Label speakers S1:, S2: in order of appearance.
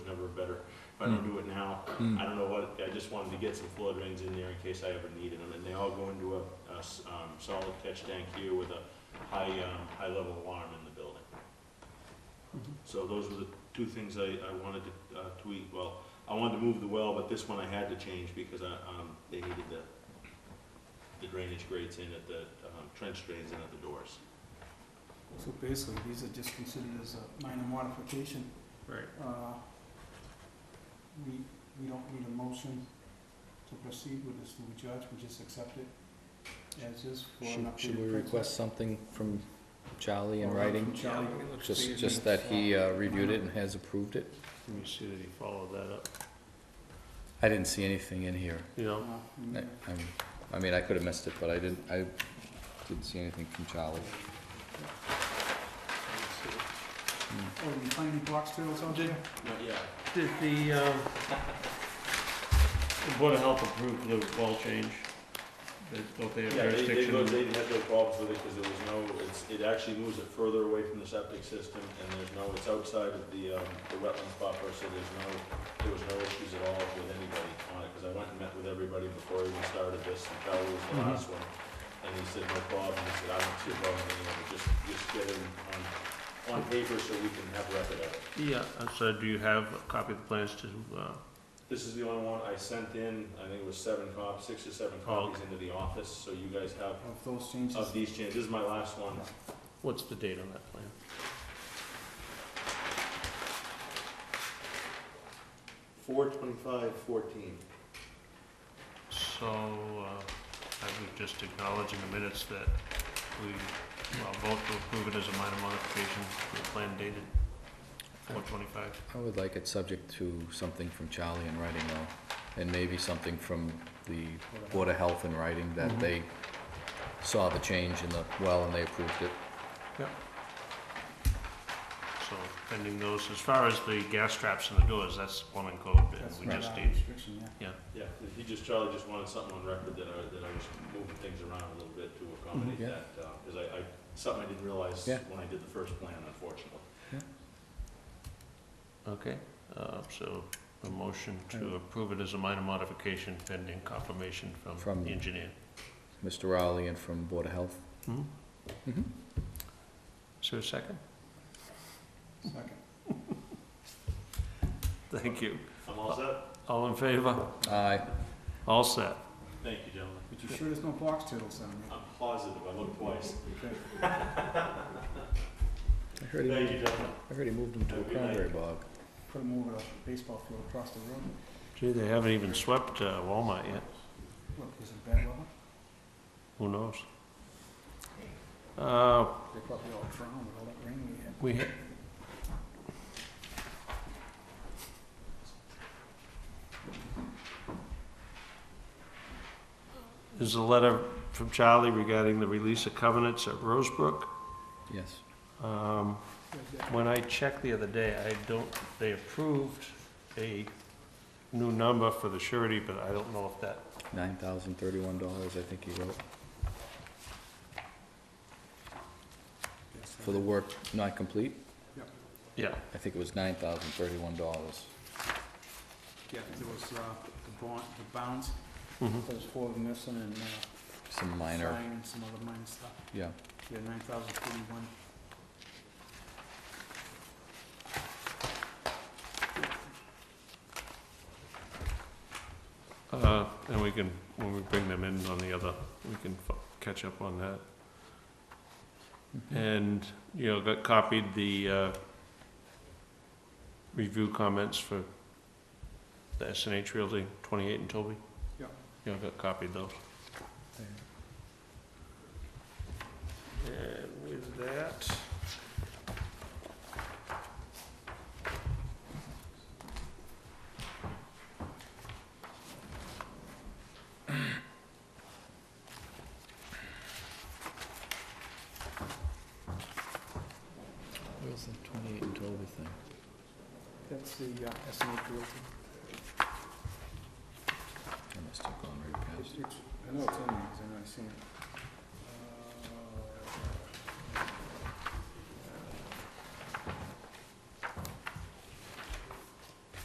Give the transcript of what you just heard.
S1: better if I don't do it now.
S2: Hmm.
S1: I don't know what, I just wanted to get some flood drains in there in case I ever needed them, and they all go into a, a s- um, solid catch tank here with a high, um, high level alarm in the building.
S3: Mm-hmm.
S1: So those were the two things I, I wanted to uh, tweak, well, I wanted to move the well, but this one I had to change because I, um, they needed the, the drainage grates in at the, um, trench drains in at the doors.
S3: So basically, these are just considered as a minor modification.
S4: Right.
S3: Uh, We, we don't need a motion to proceed with this, do we, Judge? We just accept it as is for an
S2: Should,
S3: updated.
S2: should we
S3: print.
S2: request something from Charlie in
S3: Or
S2: writing?
S3: from Charlie.
S2: Just, just that he uh, reviewed it and has approved it?
S4: Let me see that he followed that up,
S2: I didn't see anything in here.
S4: you
S3: Uh,
S4: know?
S3: and,
S2: I,
S3: uh,
S2: I'm- I mean, I could have missed it, but I didn't, I didn't see anything from Charlie.
S3: Oh, you find any box turtles out there?
S1: Not yet.
S4: Did the, um, the Board of Health approve the wall change? They- Don't they have
S1: Yeah, they, they go,
S4: jurisdiction?
S1: they had no problems with it because there was no, it's, it actually moves it further away from the septic system and there's no, it's outside of the, um, the wetlands buffer, so there's no, there was no issues at all with anybody on it, because I went and met with everybody before I even started this, and Charlie was the
S4: Mhm.
S1: last one. And he said, no problem, he said, I don't see a problem, you know, just, just get it on, on paper so we can have record of it.
S4: Yeah, uh, so do you have a copy of the plans to, uh,
S1: This is the only one I sent in, I think it was seven copies, six or seven
S4: Oh,
S1: copies into the office, so you guys have,
S3: Of those changes?
S1: of these changes, this is my last one.
S4: what's the date on that plan?
S1: Four twenty-five fourteen.
S4: So, uh, I would just acknowledge in the minutes that we, well, vote to approve it as a minor modification, to the plan dated four twenty-five.
S2: I would like it subject to something from Charlie in writing though, and maybe something from the Board of Health in writing that
S4: Mhm.
S2: they saw the change in the well and they approved it.
S4: So pending those, as far as the gas traps and the doors, that's plumbing code, and
S3: That's
S4: we
S3: not
S4: just
S3: our
S4: need,
S3: Restriction, yeah.
S1: Yeah, he just, Charlie just wanted something on record that I, that I was moving things around a little bit to accommodate
S2: Mhm. Yeah.
S1: that, uh, cause I, I, something I didn't realize
S2: Yeah.
S1: when I did the first plan, unfortunately.
S4: okay, uh, so a motion to approve it as a minor modification pending confirmation from
S2: From-
S4: the engineer.
S2: Mr. Rowley and from Board of Health.
S4: Hmm?
S2: Mhm.
S4: Is there a second?
S3: Second.
S4: Thank you.
S1: I'm all set?
S4: All in favor?
S2: Aye.
S4: All set.
S1: Thank you, gentlemen.
S3: But you sure there's no box turtles down there?
S1: I'm positive, I looked twice.
S4: Uh,
S2: I
S3: Okay.
S2: heard
S1: Thank
S2: he, moved-
S1: you, gentlemen.
S2: I heard he moved him to a
S1: Have a good night.
S2: cranberry bog.
S3: Put them over a baseball field across the road.
S4: Gee, they haven't even swept uh, Walmart yet.
S3: Look, is it bad level?
S4: Who knows? Uh,
S3: They probably all drowned with all that rain we had.
S4: we, ha- Is a letter from Charlie regarding the release of covenants at Rosebrook.
S2: Yes.
S4: Um, When I checked the other day, I don't, they approved a new number for the surety, but I don't know if that,
S2: Nine thousand thirty-one dollars, I think he wrote, for the work not complete.
S4: yeah,
S2: I think it was nine thousand thirty-one dollars.
S3: Yeah, there was, uh, the bond, the bounds,
S4: mhm,
S3: there was four of them missing and, uh,
S2: Some minor,
S3: sign and some other minor stuff.
S2: yeah.
S3: Yeah, nine thousand forty-one.
S4: Uh, and we can, when we bring them in on the other, we can fo- catch up on that.
S2: Mm-hmm.
S4: And, you know, got copied the, uh, review comments for the S and H Realty, twenty-eight and Toby.
S3: Yeah.
S4: You know, got copied those. And with that.
S2: Where's the twenty-eight and Toby thing?
S3: That's the, uh, estimate realty.
S2: I must have gone right
S3: It's-
S2: past it.
S3: it's- I know it's in there, 'cause I know I seen it. Uh,